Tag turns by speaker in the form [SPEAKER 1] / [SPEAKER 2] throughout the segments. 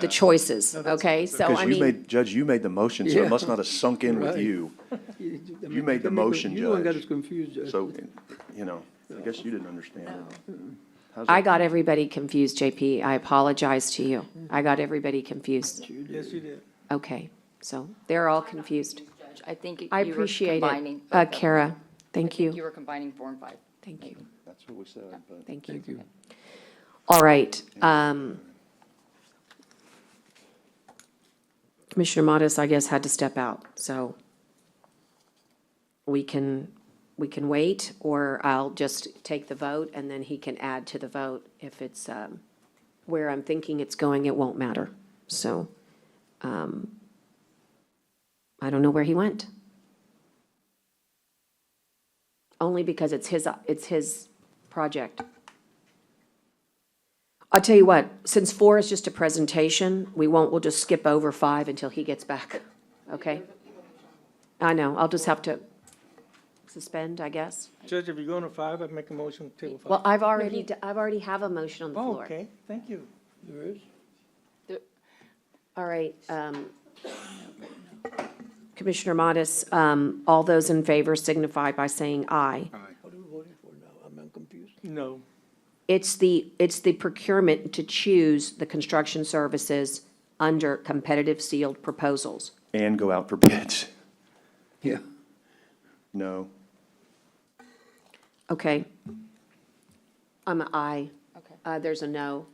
[SPEAKER 1] the choices, okay? So I
[SPEAKER 2] Because you
[SPEAKER 1] mean,
[SPEAKER 2] made, Judge, you made the motion, so
[SPEAKER 3] Yeah.
[SPEAKER 2] it must not have sunk in with
[SPEAKER 3] Right.
[SPEAKER 2] you.
[SPEAKER 3] You I
[SPEAKER 2] You
[SPEAKER 3] mean,
[SPEAKER 2] made the
[SPEAKER 3] I mean,
[SPEAKER 2] motion,
[SPEAKER 3] You the one got
[SPEAKER 2] Judge.
[SPEAKER 3] us confused, Judge.
[SPEAKER 2] So, you know, I guess you didn't understand it. How's
[SPEAKER 1] I
[SPEAKER 2] it-
[SPEAKER 1] got everybody confused, JP. I apologize to you. I got everybody confused.
[SPEAKER 3] Yes, you did.
[SPEAKER 1] Okay, so they're all confused.
[SPEAKER 4] I think you
[SPEAKER 1] I
[SPEAKER 4] were
[SPEAKER 1] appreciate
[SPEAKER 4] combining
[SPEAKER 1] it. Uh,
[SPEAKER 4] both of-
[SPEAKER 1] Kara, thank
[SPEAKER 4] You
[SPEAKER 1] you,
[SPEAKER 4] were combining four and five.
[SPEAKER 1] thank you,
[SPEAKER 2] That's what we said, but.
[SPEAKER 1] thank you.
[SPEAKER 3] Thank you.
[SPEAKER 1] All right. um, Commissioner Modis, I guess, had to step out, so we can, we can wait, or I'll just take the vote, and then he can add to the vote. If it's um, where I'm thinking it's going, it won't matter. So um, I don't know where he went. Only because it's his, it's his project. I'll tell you what, since four is just a presentation, we won't, we'll just skip over five until he gets back, okay? I know, I'll just have to suspend, I guess.
[SPEAKER 5] Judge, if you're going to five, I'd make a motion to table five.
[SPEAKER 1] Well, I've already, d- I've already have a motion on the
[SPEAKER 5] Oh,
[SPEAKER 1] floor.
[SPEAKER 5] okay, thank you.
[SPEAKER 3] There is?
[SPEAKER 1] All right, um, Commissioner Modis, um, all those in favor signify by saying aye.
[SPEAKER 3] What are we voting for now? I'm I'm confused.
[SPEAKER 5] No,
[SPEAKER 1] It's the, it's the procurement to choose the construction services under competitive sealed proposals.
[SPEAKER 2] And go out for bids.
[SPEAKER 3] Yeah.
[SPEAKER 2] No.
[SPEAKER 1] Okay. I'm an aye.
[SPEAKER 4] Okay.
[SPEAKER 1] Uh, There's a no.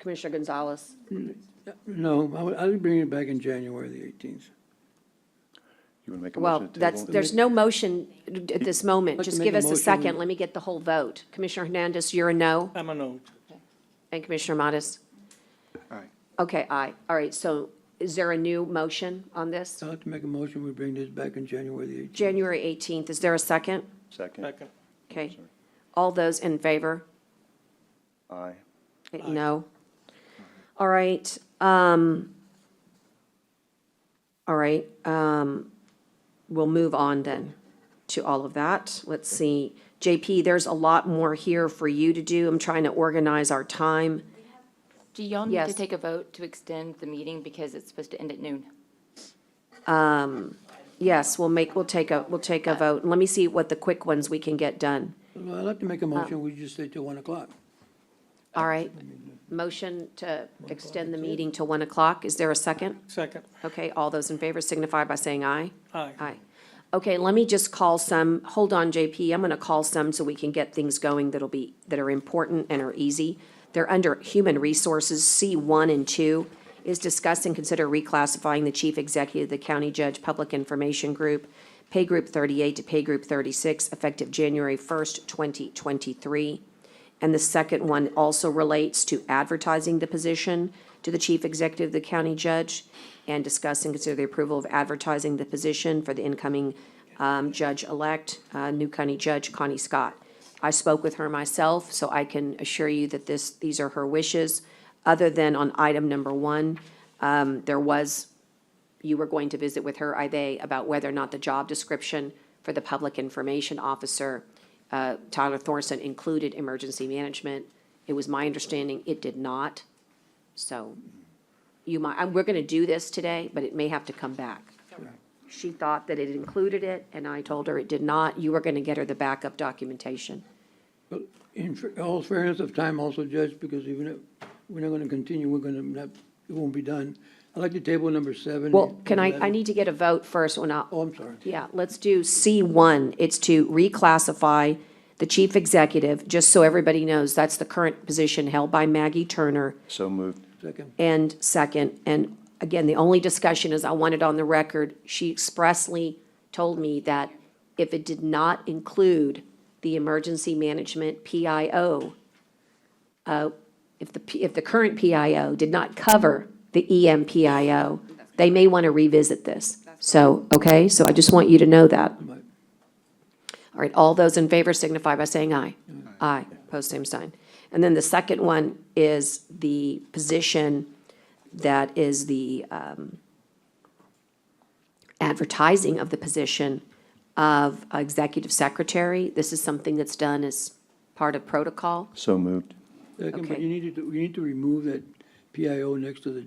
[SPEAKER 1] Commissioner Gonzalez?
[SPEAKER 3] No, I would, I'd bring it back in January the eighteenth.
[SPEAKER 2] You want to make a motion
[SPEAKER 1] Well,
[SPEAKER 2] to table?
[SPEAKER 1] that's, there's no motion at this moment.
[SPEAKER 3] I'd like to
[SPEAKER 1] Just
[SPEAKER 3] make
[SPEAKER 1] give
[SPEAKER 3] a
[SPEAKER 1] us a
[SPEAKER 3] motion.
[SPEAKER 1] second. Let me get the whole vote. Commissioner Hernandez, you're a no,
[SPEAKER 5] I'm a no.
[SPEAKER 1] and Commissioner Modis?
[SPEAKER 2] Aye.
[SPEAKER 1] Okay, aye. All right, so is there a new motion on this?
[SPEAKER 3] I'll have to make a motion, we bring this back in January the eighteenth.
[SPEAKER 1] January 18th, is there a second?
[SPEAKER 2] Second,
[SPEAKER 5] Second,
[SPEAKER 1] Okay. All those in favor?
[SPEAKER 2] aye.
[SPEAKER 1] No. All right, um, all right, um, we'll move on then to all of that. Let's see, JP, there's a lot more here for you to do. I'm trying to organize our time.
[SPEAKER 4] Do y'all need
[SPEAKER 1] Yes.
[SPEAKER 4] to take a vote to extend the meeting because it's supposed to end at noon?
[SPEAKER 1] Yes, we'll make, we'll take a, we'll take a vote. Let me see what the quick ones we can get done.
[SPEAKER 3] Well, I'd like to make
[SPEAKER 1] Ah.
[SPEAKER 3] a motion, we just stay till one o'clock.
[SPEAKER 1] All right, motion to extend the meeting to 1 o'clock. Is there a second?
[SPEAKER 5] second,
[SPEAKER 1] Okay, all those in favor signify by saying aye.
[SPEAKER 5] aye.
[SPEAKER 1] Aye. Okay, let me just call some, hold on, JP, I'm gonna call some so we can get things going that'll be, that are important and are easy. They're under Human Resources, C one and two, is discuss and consider reclassifying the chief executive of the county judge public information group, pay group thirty-eight to pay group thirty-six, effective January first, twenty twenty-three. And the second one also relates to advertising the position to the chief executive of the county judge and discuss and consider the approval of advertising the position for the incoming um, judge-elect, uh, new county judge Connie Scott. I spoke with her myself, so I can assure you that this, these are her wishes. Other than on item number one, um, there was you were going to visit with her, I they, about whether or not the job description for the public information officer, uh, Tyler Thorson, included emergency management. It was my understanding it did not. So you might, and we're going to do this today, but it may have to come back. She thought that it included it, and I told her it did not. You were going to get her the backup documentation.
[SPEAKER 3] But in fa- all fairness of time also, Judge, because even if we're not gonna continue, we're gonna not, it won't be done. I'd like to table number seven.
[SPEAKER 1] Well,
[SPEAKER 3] and
[SPEAKER 1] can I, I
[SPEAKER 3] 11.
[SPEAKER 1] need to get a vote first when I,
[SPEAKER 3] Oh, I'm sorry.
[SPEAKER 1] Yeah, let's do C1. It's to reclassify the chief executive, just so everybody knows, that's the current position held by Maggie Turner.
[SPEAKER 2] So moved.
[SPEAKER 3] Second.
[SPEAKER 1] And second, and again, the only discussion is I want it on the record, she expressly told me that if it did not include the emergency management PIO, uh, if the, P- if the current PIO did not cover the E EMPIO, they may want to revisit this. So, okay, so I just want you to know that.
[SPEAKER 3] Right.
[SPEAKER 1] All right, all those in favor signify by saying aye. Aye, post same sign. And then the second one is the position that is the um, advertising of the position of executive secretary. This is something that's done as part of protocol.
[SPEAKER 2] So moved.
[SPEAKER 3] Second, but
[SPEAKER 1] Okay.
[SPEAKER 3] you need to, you need to remove that PIO next to the